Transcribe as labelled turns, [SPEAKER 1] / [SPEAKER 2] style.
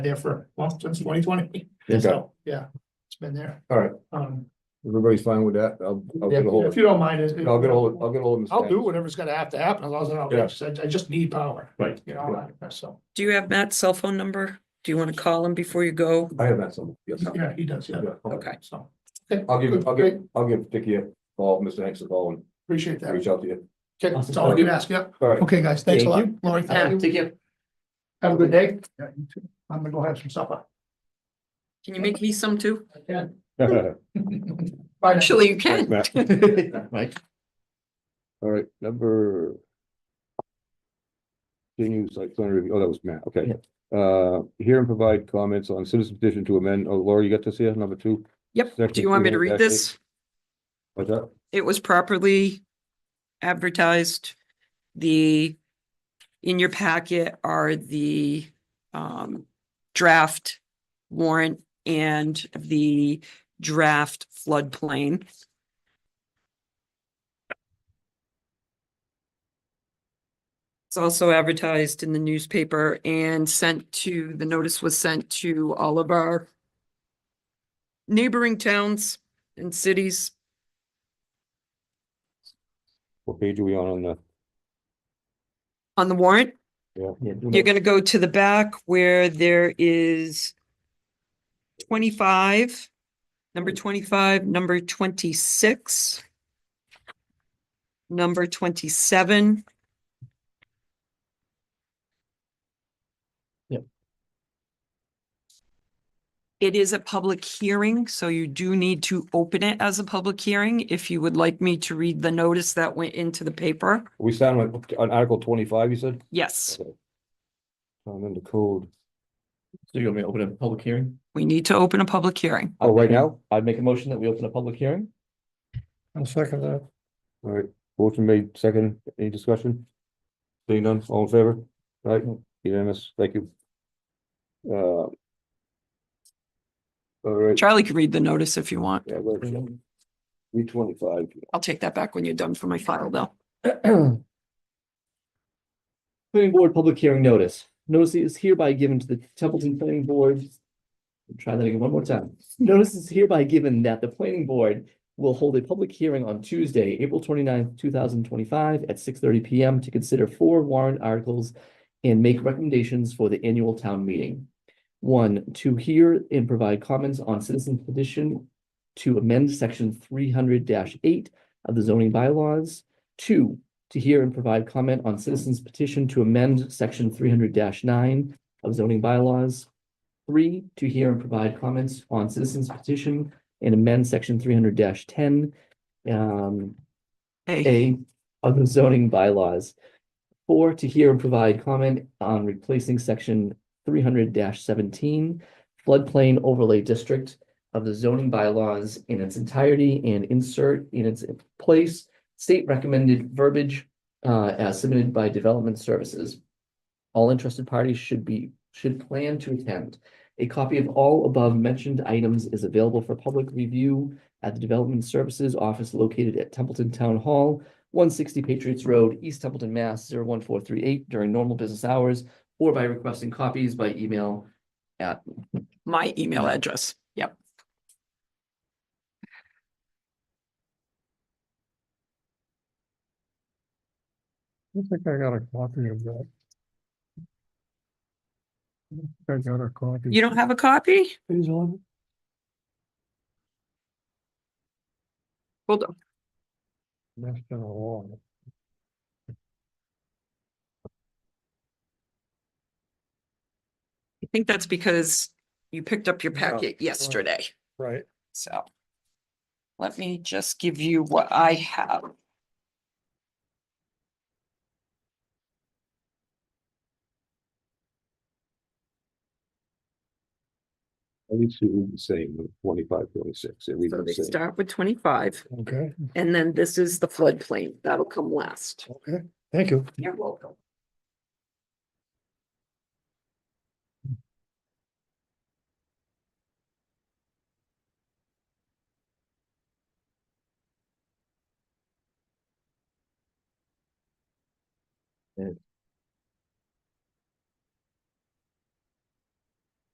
[SPEAKER 1] there for, well, since twenty twenty,
[SPEAKER 2] Okay,
[SPEAKER 1] so, yeah, it's been there.
[SPEAKER 2] all right,
[SPEAKER 1] Um,
[SPEAKER 2] everybody's fine with that, I'll, I'll get a hold
[SPEAKER 1] if
[SPEAKER 2] of,
[SPEAKER 1] you don't mind, it.
[SPEAKER 2] I'll get a hold, I'll get a hold of. Ms.
[SPEAKER 1] I'll do
[SPEAKER 2] Sanders.
[SPEAKER 1] whatever's gonna have to happen, as long as I don't,
[SPEAKER 2] Yeah.
[SPEAKER 1] rush. I, I just need power.
[SPEAKER 2] Right.
[SPEAKER 1] You know, I- so,
[SPEAKER 3] Do you have Matt's cell phone number? Do you want to call him before you go?
[SPEAKER 2] I have that somewhere, yes.
[SPEAKER 1] yeah, he does, yeah,
[SPEAKER 2] Yeah, okay.
[SPEAKER 3] Okay.
[SPEAKER 1] so.
[SPEAKER 2] I'll give, I'll give,
[SPEAKER 1] Great,
[SPEAKER 2] I'll give Dickie a call, Mr. Hanks a call
[SPEAKER 1] Appreciate
[SPEAKER 2] and
[SPEAKER 1] that.
[SPEAKER 2] reach out to you.
[SPEAKER 1] Okay, that's all I can ask, yeah.
[SPEAKER 2] All right,
[SPEAKER 1] Okay, guys, thanks a lot.
[SPEAKER 2] Thank
[SPEAKER 1] Lori, thank you. Have a good day. Yeah, you too. I'm gonna go have some supper.
[SPEAKER 3] Can you make me some too?
[SPEAKER 1] I can.
[SPEAKER 2] all
[SPEAKER 1] Bye now.
[SPEAKER 3] Actually, you can.
[SPEAKER 2] right, number. Continues like, plan review, oh, that was Matt, okay. Uh, hear and provide comments on citizen petition to amend, oh, Laura, you got this here, number two?
[SPEAKER 3] Yep. Do you want me to read this?
[SPEAKER 2] What's that?
[SPEAKER 3] It was properly advertised. The, in your packet are the um draft warrant and the draft floodplain. It's also advertised in the newspaper and sent to, the notice was sent to all of our neighboring towns and cities.
[SPEAKER 2] What page are we on on the?
[SPEAKER 3] on the warrant,
[SPEAKER 2] Yeah.
[SPEAKER 3] you're gonna go to the back where there is twenty-five, number twenty-five, number twenty-six, number twenty-seven.
[SPEAKER 4] Yep.
[SPEAKER 3] It is a public hearing, so you do need to open it as a public hearing if you would like me to read the notice that went into the paper.
[SPEAKER 2] We sound like, on Article twenty-five, you said?
[SPEAKER 3] Yes,
[SPEAKER 2] And then the code,
[SPEAKER 4] So you want me to open a public hearing?
[SPEAKER 3] we need to open a public hearing.
[SPEAKER 2] oh, right now?
[SPEAKER 4] I'd make a motion that we open a public hearing.
[SPEAKER 1] I'll second that.
[SPEAKER 2] All right, motion made, second, any discussion? Seeing none, all in favor? Right, unanimous, thank you. Uh. All right,
[SPEAKER 3] Charlie can read the notice if you want.
[SPEAKER 2] yeah, well, three twenty-five.
[SPEAKER 3] I'll take that back when you're done for my file though.
[SPEAKER 4] Planning Board Public Hearing Notice. Notice is hereby given to the Templeton Planning Board. Try that again one more time. Notice is hereby given that the Planning Board will hold a public hearing on Tuesday, April 29th, thousand twenty-five at six thirty P M to consider four warrant articles and make recommendations for the annual town meeting. One, to hear and provide comments on citizen petition to amend section three hundred eight of the zoning bylaws. Two, to hear and provide comment on citizens petition to amend section three hundred nine of zoning bylaws. Three, to hear and provide comments on citizens petition and amend section three hundred ten um,
[SPEAKER 3] Hey,
[SPEAKER 4] A of the zoning bylaws. Four, to hear and provide comment on replacing section three hundred seventeen floodplain overlay district of the zoning bylaws in its entirety and insert in its place state recommended verbiage uh, as submitted by Development Services. All interested parties should be, should plan to attend. A copy of all above mentioned items is available for public review at the Development Services Office located at Templeton Town Hall, one sixty Patriots Road, East Templeton, Mass. 01438 during normal business hours or by requesting copies by email.
[SPEAKER 3] my email address. Yep.
[SPEAKER 5] I think I got a copy of that. I think I got a copy.
[SPEAKER 2] Hmm.
[SPEAKER 3] You don't have a copy?
[SPEAKER 5] Please, Ellen.
[SPEAKER 3] Hold on.
[SPEAKER 5] That's been a long.
[SPEAKER 3] I think that's because you picked up your
[SPEAKER 5] Yeah,
[SPEAKER 3] packet yesterday.
[SPEAKER 5] Right.
[SPEAKER 3] So let me just give you what I have.
[SPEAKER 2] At least it reads the same, twenty-five, twenty-six, it reads
[SPEAKER 3] So they
[SPEAKER 2] the same.
[SPEAKER 3] start with twenty-five
[SPEAKER 5] Okay,
[SPEAKER 3] and then this is the floodplain. That'll come last.
[SPEAKER 5] okay. Thank you.
[SPEAKER 3] You're welcome.